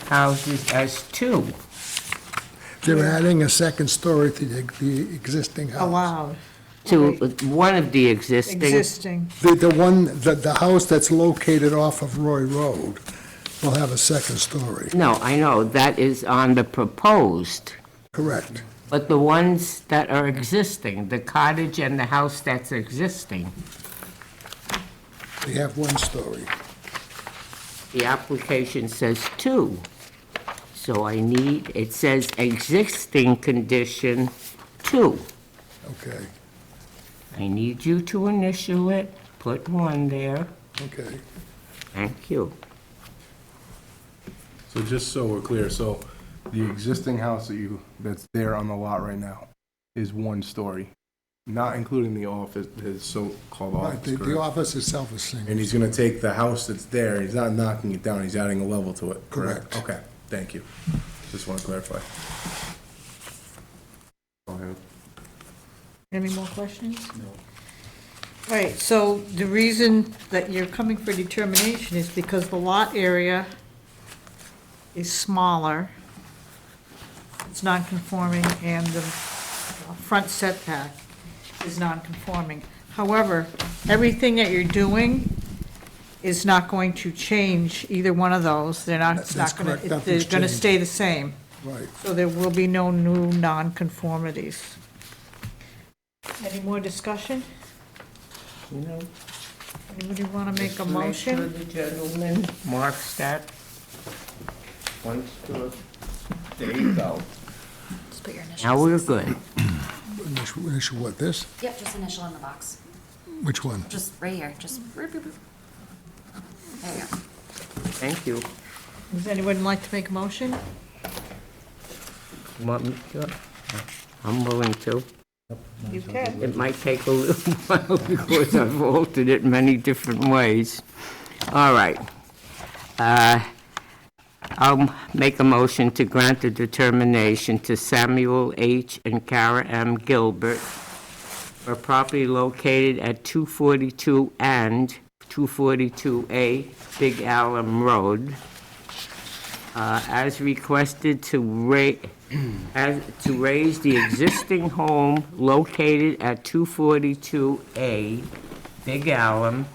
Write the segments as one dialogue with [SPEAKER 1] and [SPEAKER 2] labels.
[SPEAKER 1] houses as two.
[SPEAKER 2] They're adding a second story to the, the existing
[SPEAKER 3] Oh,
[SPEAKER 2] house.
[SPEAKER 3] allowed,
[SPEAKER 1] To one of the existing,
[SPEAKER 3] existing.
[SPEAKER 2] The, the one, the, the house that's located off of Roy Road will have a second story,
[SPEAKER 1] no, I know, that is on the proposed,
[SPEAKER 2] correct?
[SPEAKER 1] but the ones that are existing, the cottage and the house that's existing,
[SPEAKER 2] They have one story.
[SPEAKER 1] the application says two. So I need, it says existing condition two.
[SPEAKER 2] Okay,
[SPEAKER 1] I need you to initial it, put one there.
[SPEAKER 2] okay.
[SPEAKER 1] Thank you.
[SPEAKER 4] So just so we're clear, so the existing house that you, that's there on the lot right now is one story, not including the office, his so-called
[SPEAKER 2] Right, The,
[SPEAKER 4] office,
[SPEAKER 2] the
[SPEAKER 4] correct?
[SPEAKER 2] office itself is single.
[SPEAKER 4] And he's gonna take the house that's there, he's not knocking it down, he's adding a level to it, correct?
[SPEAKER 2] Correct.
[SPEAKER 4] Okay, thank you. Just wanna clarify. Go ahead.
[SPEAKER 3] Any more questions? No. All right, so the reason that you're coming for determination is because the lot area is smaller, it's non-conforming, and the front setback is non-conforming. However, everything that you're doing is not going to change either one of those. They're not, it's
[SPEAKER 2] That's
[SPEAKER 3] not going
[SPEAKER 2] correct.
[SPEAKER 3] to, they're
[SPEAKER 2] Nothing's
[SPEAKER 3] going to
[SPEAKER 2] changed.
[SPEAKER 3] stay the same.
[SPEAKER 2] Right.
[SPEAKER 3] So there will be no new nonconformities. Any more discussion?
[SPEAKER 1] You know,
[SPEAKER 3] Anybody want to make a
[SPEAKER 1] Just make sure
[SPEAKER 3] motion?
[SPEAKER 1] The gentleman marks that. One store. There you go.
[SPEAKER 5] Just put your initials.
[SPEAKER 1] Now we're good.
[SPEAKER 2] Initial, initial what, this?
[SPEAKER 5] Yep, just initial in the box.
[SPEAKER 2] Which one?
[SPEAKER 5] Just right here, just. There you go.
[SPEAKER 1] Thank you.
[SPEAKER 3] Does anyone like to make a motion?
[SPEAKER 1] Want me to? I'm willing to.
[SPEAKER 3] You can.
[SPEAKER 1] It might take a little while because I've altered it many different ways. All right. Uh, I'll make a motion to grant the determination to Samuel H. and Kara M. Gilbert for property located at 242 and 242A Big Alum Road uh, as requested to ra, as, to raise the existing home located at 242A Big Alum,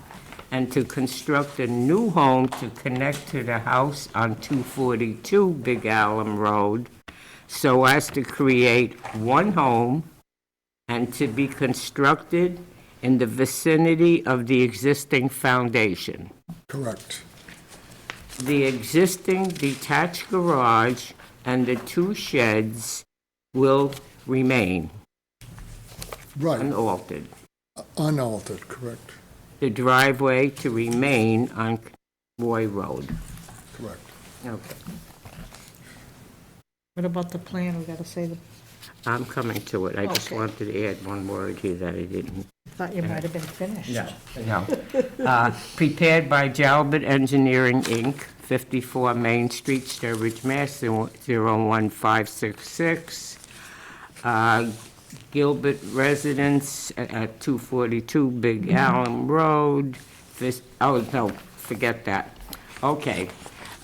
[SPEAKER 1] and to construct a new home to connect to the house on 242 Big Alum Road, so as to create one home and to be constructed in the vicinity of the existing foundation.
[SPEAKER 2] Correct.
[SPEAKER 1] The existing detached garage and the two sheds will remain
[SPEAKER 2] Right,
[SPEAKER 1] unaltered.
[SPEAKER 2] unaltered, correct,
[SPEAKER 1] The driveway to remain on Roy Road.
[SPEAKER 2] correct.
[SPEAKER 1] Okay,
[SPEAKER 3] What about the plan? We got to say, the-
[SPEAKER 1] I'm coming to it. I just
[SPEAKER 3] Okay.
[SPEAKER 1] wanted to add one word here that I didn't.
[SPEAKER 3] I thought you might have been finished.
[SPEAKER 1] No. Uh, Prepared by Jalbert Engineering, Inc., 54 Main Street, Sturbridge, Mass. 01566. Uh, Gilbert Residence at- at 242 Big Allen Road. This, oh, no, forget that. Okay,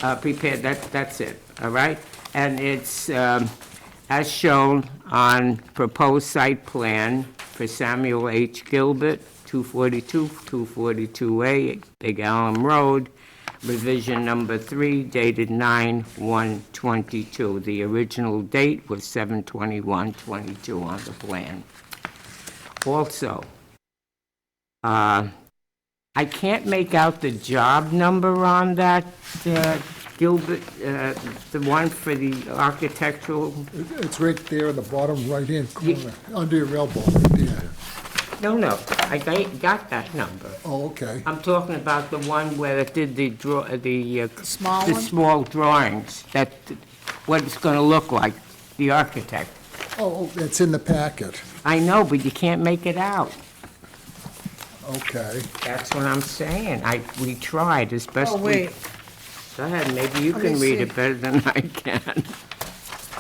[SPEAKER 1] Uh, prepared, that, that's it, all right? And it's um, as shown on proposed site plan for Samuel H. Gilbert, 242, 242A, Big Allen Road, revision number three dated 9/1/22. The original date was 7/21/22 on the plan. Also, uh, I can't make out the job number on that, uh, Gilbert, uh, the one for the architectural.
[SPEAKER 2] It- It's right there in the bottom right-hand
[SPEAKER 1] Ye-
[SPEAKER 2] corner, under your elbow, right there.
[SPEAKER 1] No, no, I ga- got that number.
[SPEAKER 2] Oh, okay.
[SPEAKER 1] I'm talking about the one where it did the draw, the. uh,
[SPEAKER 3] Small
[SPEAKER 1] The
[SPEAKER 3] one?
[SPEAKER 1] small drawings, that, what it's going to look like, the architect.
[SPEAKER 2] Oh, oh, it's in the packet,
[SPEAKER 1] I know, but you can't make it out.
[SPEAKER 2] okay.
[SPEAKER 1] That's what I'm saying. I, we tried as best
[SPEAKER 3] Oh,
[SPEAKER 1] we.
[SPEAKER 3] wait,
[SPEAKER 1] Go ahead, maybe you
[SPEAKER 3] Let
[SPEAKER 1] can
[SPEAKER 3] me
[SPEAKER 1] read
[SPEAKER 3] see.
[SPEAKER 1] it better than I can.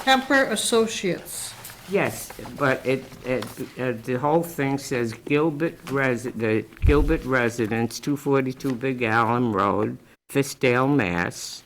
[SPEAKER 3] Kemper Associates.
[SPEAKER 1] Yes, but it, it, uh, the whole thing says Gilbert resi, the Gilbert residence, 242 Big Allen Road, Fiskdale, Mass.